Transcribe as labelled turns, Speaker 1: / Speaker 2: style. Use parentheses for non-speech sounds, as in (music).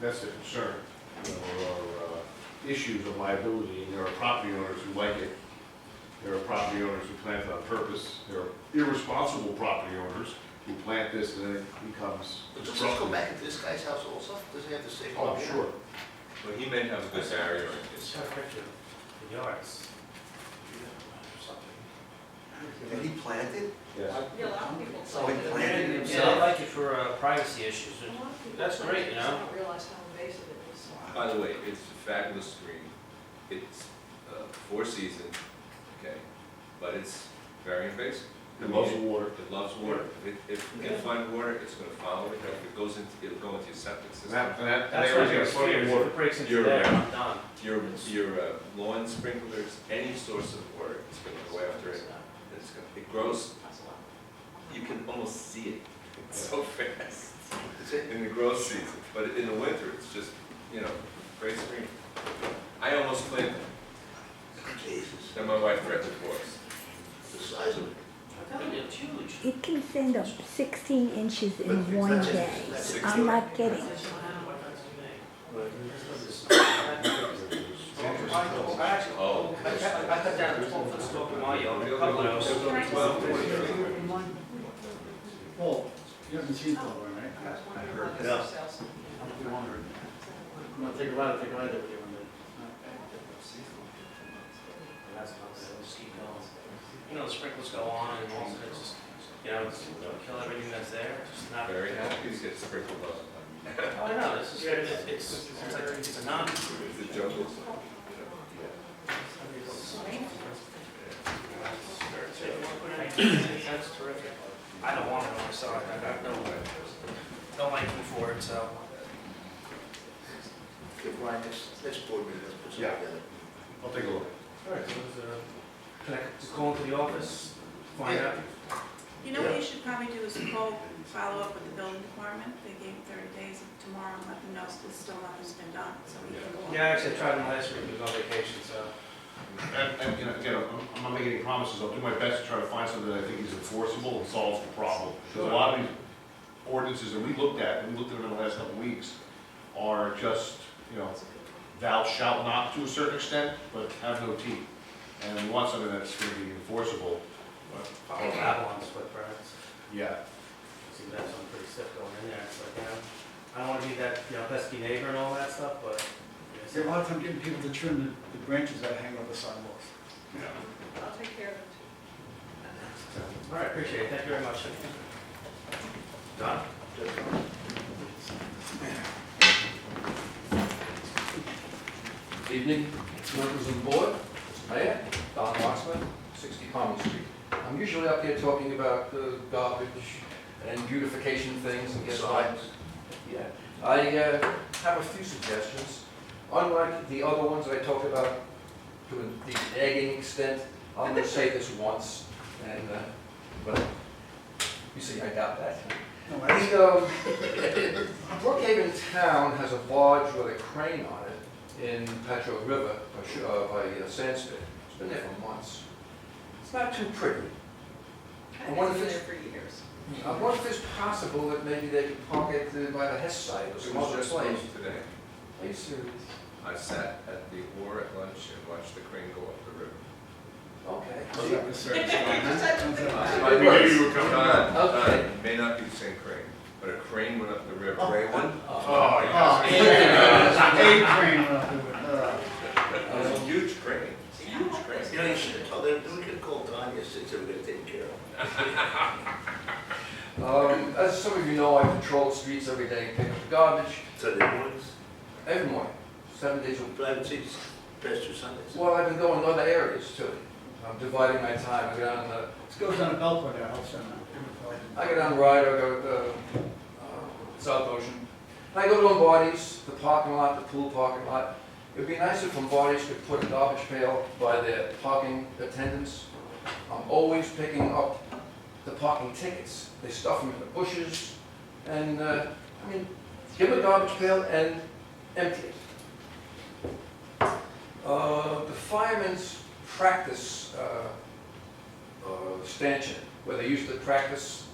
Speaker 1: that's the concern. You know, There are uh, issues of liability, and there are property owners who like it. There are property owners who plant on purpose. There are irresponsible property owners who plant this and then it becomes.
Speaker 2: But does this go back into this guy's house also? Does he have the same?
Speaker 1: Oh, sure.
Speaker 3: Well, he may have a good barrier in his,
Speaker 4: Got a picture of the yards.
Speaker 2: And he planted?
Speaker 1: Yes.
Speaker 5: Yeah, a lot of people.
Speaker 2: So he
Speaker 5: like
Speaker 2: planted
Speaker 5: it.
Speaker 4: Yeah, I like it for uh, privacy issues.
Speaker 5: A lot of people
Speaker 4: That's
Speaker 5: like it,
Speaker 4: great, you
Speaker 5: just
Speaker 4: know?
Speaker 5: don't realize how invasive it is.
Speaker 3: by the way, it's a fabulous green, it's, uh, four season, okay, but it's very invasive.
Speaker 1: It loves water.
Speaker 3: It loves water, if, it- if it can find water, it's gonna follow it, if it goes into, it'll go into your septic
Speaker 1: And that,
Speaker 3: system.
Speaker 1: and that, and
Speaker 4: That's
Speaker 1: they
Speaker 4: what
Speaker 1: always
Speaker 4: it
Speaker 1: get plenty of
Speaker 4: fears, if
Speaker 1: water.
Speaker 4: it breaks into
Speaker 3: You're
Speaker 4: that,
Speaker 3: right.
Speaker 4: I'm done.
Speaker 3: Your, your uh, lawn sprinklers, any source of water, it's gonna go after it, it's gonna, it grows,
Speaker 5: That's a lot.
Speaker 3: you can almost see it, it's so (laughs) fast.
Speaker 2: Is it?
Speaker 3: in the growth season, but in the winter, it's just, you know, great screen. I almost planted,
Speaker 2: Jesus,
Speaker 3: then my wife threatened for us.
Speaker 2: the size of it.
Speaker 4: I think it's huge.
Speaker 6: It can send up 16 inches in
Speaker 2: But
Speaker 6: one
Speaker 2: that's-
Speaker 6: day.
Speaker 2: that's-
Speaker 6: I'm not kidding.
Speaker 3: Oh.
Speaker 4: I cut, I cut down a twelve foot slope in my yard, a couple of those.
Speaker 3: Well,
Speaker 7: Well, you haven't seen that one, right?
Speaker 5: I was wondering about
Speaker 2: Yeah.
Speaker 5: this sales.
Speaker 7: I'll be wondering. I'm gonna take a lot of, take a lot of it when
Speaker 4: You know, the sprinklers go on and all, so it's just, you know, it's- don't kill everything that's there, just not.
Speaker 3: Very happy to get sprinkled on.
Speaker 4: Oh, I know, this is, it's, it's, it's like, it's a non,
Speaker 3: It's a jungle.
Speaker 4: That's terrific. I don't want it on my side, I got no, no liking for it, so.
Speaker 2: Okay, Brian, next, next board meeting, let's put
Speaker 1: Yeah.
Speaker 2: something together.
Speaker 1: I'll take a look.
Speaker 4: uh, Can I just go into the office, find out?
Speaker 8: You know what you should probably do is call, follow up with the building department, they gave thirty days tomorrow, and let them know it's still nothing's been done, so we can go on.
Speaker 4: Yeah, actually, I tried them last week, we was on vacation, so.
Speaker 1: And, and, you know, again, I'm- I'm not making any promises, I'll do my best to try to find something that I think is enforceable and solves the problem. Because a lot of these ordinances that we looked at, and we looked at them in the last couple of weeks, are just, you know, thou shalt not to a certain extent, but have no teeth. And we want something that's gonna be enforceable,
Speaker 4: Follow Babylon's footprints,
Speaker 1: yeah.
Speaker 4: see, that's something pretty stiff going in there, it's like, you know, I don't wanna be that, you know, pesky neighbor and all that stuff, but.
Speaker 7: they, see, a lot of time getting people to trim the, the branches that hang over the sidewalks.
Speaker 5: I'll take care of it.
Speaker 4: All right, appreciate it, thank you very much. Done?
Speaker 9: Evening, members of the board, Mayor, Don Waxman, 60 Palmer Street. I'm usually up here talking about uh, garbage and beautification things and guess what? Yeah, I uh, have a few suggestions. Unlike the other ones I talked about to the egging extent, I'm going to say this once, and, uh, but you see, I doubt that.
Speaker 7: No, I
Speaker 9: The, um, Brookhaven Town has a barge with a crane on it in Petro River, by Sh- uh, by uh, Sandspit. It's been there for months. It's not too pretty. I wonder if
Speaker 5: I've been
Speaker 9: it's-
Speaker 5: there for years.
Speaker 9: I wonder if it's possible that maybe they could park it uh, by the Hess site or
Speaker 3: It
Speaker 9: some
Speaker 3: was
Speaker 9: other
Speaker 3: just
Speaker 9: place.
Speaker 3: supposed today.
Speaker 9: I used to-
Speaker 3: I sat at the war at lunch and watched the crane go up the river.
Speaker 9: okay.
Speaker 7: see.
Speaker 9: (laughs)
Speaker 3: I
Speaker 9: We knew
Speaker 3: you were coming.
Speaker 9: Okay.
Speaker 3: Don,
Speaker 9: Oh.
Speaker 3: Don, Uh, may not be the same crane, but a crane went up the river. Gray one?
Speaker 9: Uh,
Speaker 7: Oh, yeah. Eight train, uh,
Speaker 3: It
Speaker 9: Oh.
Speaker 3: was a huge crane, It's a huge
Speaker 2: You
Speaker 3: crane.
Speaker 2: know, you should have told them, we could have called Don yesterday, said we're gonna take care of
Speaker 9: (laughs)
Speaker 2: it.
Speaker 9: um, As some of you know, I patrol the streets every day, pick up the garbage
Speaker 2: Sunday mornings,
Speaker 9: every morning, seven days a week.
Speaker 2: but I haven't seen his past two Sundays.
Speaker 9: Well, I've been going to other areas too. I'm dividing my time. I go down, uh,
Speaker 7: this goes down a beltway, I hope so.
Speaker 9: I go down Ryder, I go to uh, South Ocean. And I go to Lombardi's, the parking lot, the pool parking lot. It'd be nice if Lombardi's could put a garbage pail by their parking attendants. I'm always picking up the parking tickets. They stuff them in the bushes. And, uh, I mean, give a garbage pail and empty it. Uh, The firemen's practice uh, uh, stanchion, where they used to practice